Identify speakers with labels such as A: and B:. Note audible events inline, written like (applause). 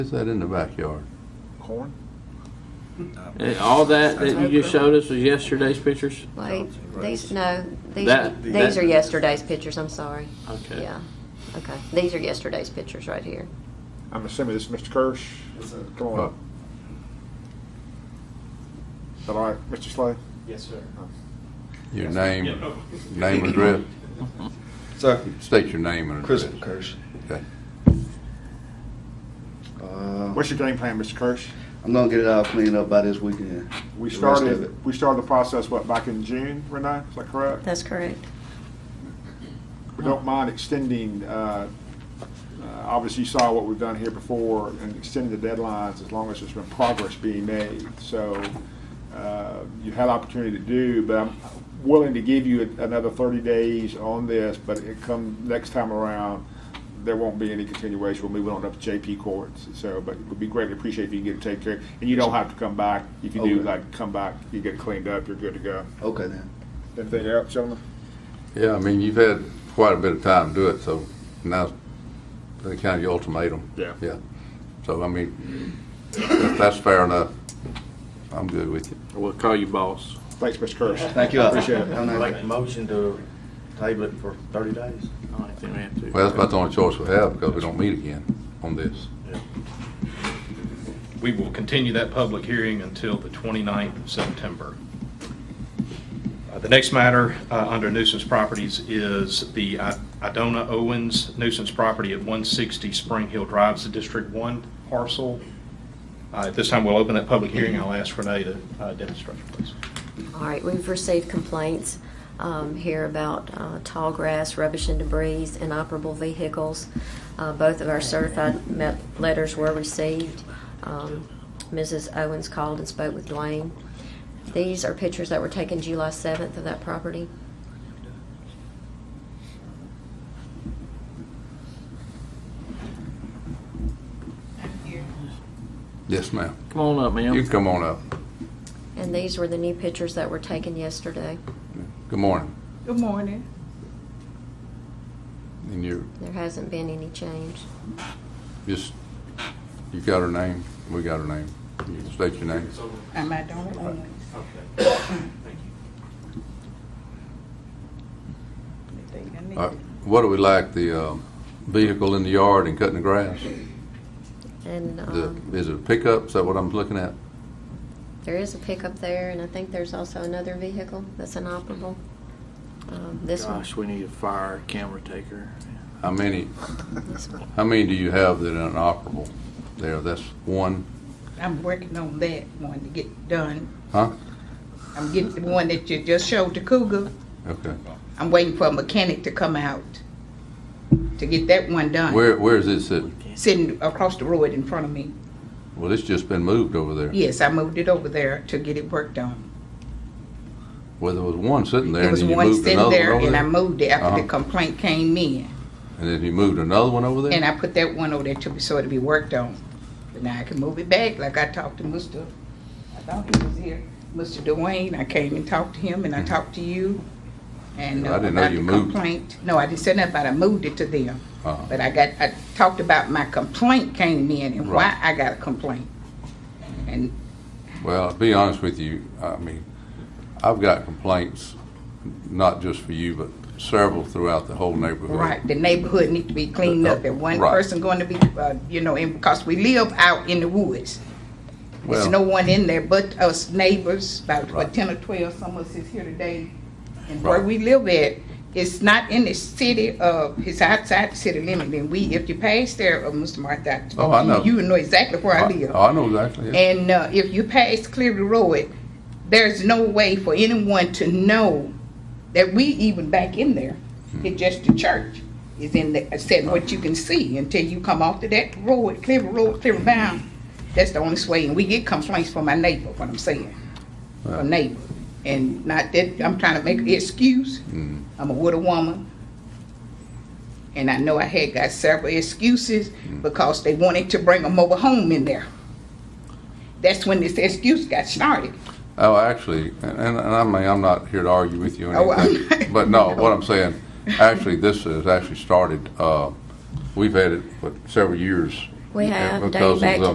A: Is that in the backyard?
B: corn.
C: And Uh, all that that you just showed us was yesterday's pictures?
D: Wait, these, no, these,
C: That-
D: these
C: that-
D: are yesterday's pictures, I'm sorry.
C: Okay.
D: Yeah, okay. These are yesterday's pictures right here.
B: I'm assuming this is Mr. Kirsch. Come on up. Is that all right, Uh, Mr. Slay?
E: Yes, sir.
A: Your name, name and address?
F: Sir,
A: State your name and address.
F: Christopher Kirsch.
A: Okay.
F: Uh,
B: What's your game plan, Mr. Kirsch?
F: I'm gonna get it all cleaned up by this weekend.
B: We
F: The rest of it.
B: started, we started the process, what, back in June, Renee? Is that correct?
D: That's correct.
B: We don't mind extending, uh, uh, obviously you saw what we've done here before and extending the deadlines as long as there's been progress being made. So uh, you had opportunity to do, but I'm willing to give you another 30 days on this, but it come next time around, there won't be any continuation. We'll move on up to JP courts. So, but it would be greatly appreciated if you get it taken care of. And you don't have to come back. If you do,
F: Okay.
B: like, come back, you get it cleaned up, you're good to go.
F: Okay then.
B: Anything else, gentlemen?
A: Yeah, I mean, you've had quite a bit of time to do it, so now's the kind of your ultimatum.
B: Yeah.
A: Yeah. So, I mean, if that's fair enough, I'm good with you.
C: We'll call you boss.
B: Thanks, Mr. Kirsch.
F: Thank you.
B: Appreciate it.
F: Have a nice
G: Make
F: day.
G: a motion to table it for thirty days.
C: I don't think we have to.
A: Well, that's about the only choice we have because we don't meet again on this.
H: We will continue that public hearing until the 29th of September. Uh, The next matter uh, under nuisance properties is the I- Idona Owens nuisance property at 160 Spring Hill Drive, it's the District 1 parcel. Uh, At this time, we'll open that public hearing. I'll ask Renee to uh, demonstrate, please.
D: All right, we've received complaints um, here about uh, tall grass, rubbish and debris, inoperable vehicles. Uh, Both of our certified met- letters were received. Um, Mrs. Owens called and spoke with Dwayne. These are pictures that were taken July 7th of that property.
A: Yes, ma'am.
C: Come on up,
A: You
C: ma'am.
A: can come on up.
D: And these were the new pictures that were taken yesterday.
A: Good morning.
I: Good morning.
A: And you,
D: There hasn't been any change.
A: just, you got her name, we got her name. You state your name.
I: I'm at Donald Owens. They think I need
A: Uh,
I: it.
A: What do we like, the um, vehicle in the yard and cutting the grass?
D: And
A: The-
D: um,
A: Is it a pickup? Is that what I'm looking at?
D: there is a pickup there, and I think there's also another vehicle that's inoperable. Um, This one,
C: Gosh, we need a fire camera taker.
A: How many,
D: this one.
A: how many do you have that are inoperable there? That's one,
I: I'm working on that one to get done.
A: huh?
I: I'm getting the one that you just showed to Cougar.
A: Okay.
I: I'm waiting for a mechanic to come out to get that one done.
A: Where, where is it sitting?
I: Sitting across the road in front of me.
A: Well, it's just been moved over there.
I: Yes, I moved it over there to get it worked on.
A: Well, there was one sitting there
I: There
A: and
I: was
A: then you
I: one
A: moved another
I: sitting
A: one
I: there
A: over
I: and I
A: there?
I: moved it after
A: Uh-huh.
I: the complaint came in.
A: And then you moved another one over
I: And
A: there?
I: I put that one over there to be, so it'll be worked on. But now I can move it back, like I talked to Mr., I thought he was here, Mr. Dwayne, I came and talked to him, and I talked to you, and
A: Yeah,
I: uh,
A: I didn't know
I: about
A: you
I: the
A: moved.
I: complaint. No, I didn't say nothing about, it. I moved it to them,
A: Uh-huh.
I: but I got, I talked about my complaint came in and
A: Right.
I: why I got a complaint. And
A: Well, to be honest with you, I mean, I've got complaints, not just for you, but several throughout the whole neighborhood.
I: Right, the neighborhood need to be cleaned up, and one
A: Right.
I: person going to be, uh, you know, and because we live out in the woods. There's
A: Well-
I: no one in there but us neighbors, about
A: Right.
I: what, ten or twelve, some of us is here today. And
A: Right.
I: where we live at, it's not in the city of, it's outside the city limit, and we, if you pass there, uh, Mr. Martha. I-
A: Oh, I know.
I: You would know exactly where I live.
A: Oh, I know exactly. yeah.
I: And uh, if you pass Cleary Road, there's no way for anyone to know that we even back in there.
A: Hmm.
I: It's just the church is in the, said what you can see until you come off to that road, Cleary Road, Cleary Bound. That's the only way, and we get complaints from my neighbor, what I'm saying,
A: Right.
I: from neighbor. And not that, I'm trying to make an excuse,
A: Mm.
I: I'm a widow woman. And I know I had got several excuses
A: Hmm.
I: because they wanted to bring a mobile home in there. That's when this excuse got started.
A: Oh, actually, and, and I mean, I'm not here to argue with you
I: Oh,
A: or
I: well. (laughs)
A: anything, but no, what I'm saying, actually, this has actually started, uh, we've had it for several years
D: We have,
A: Because
D: dating
A: of
D: back
A: the
D: to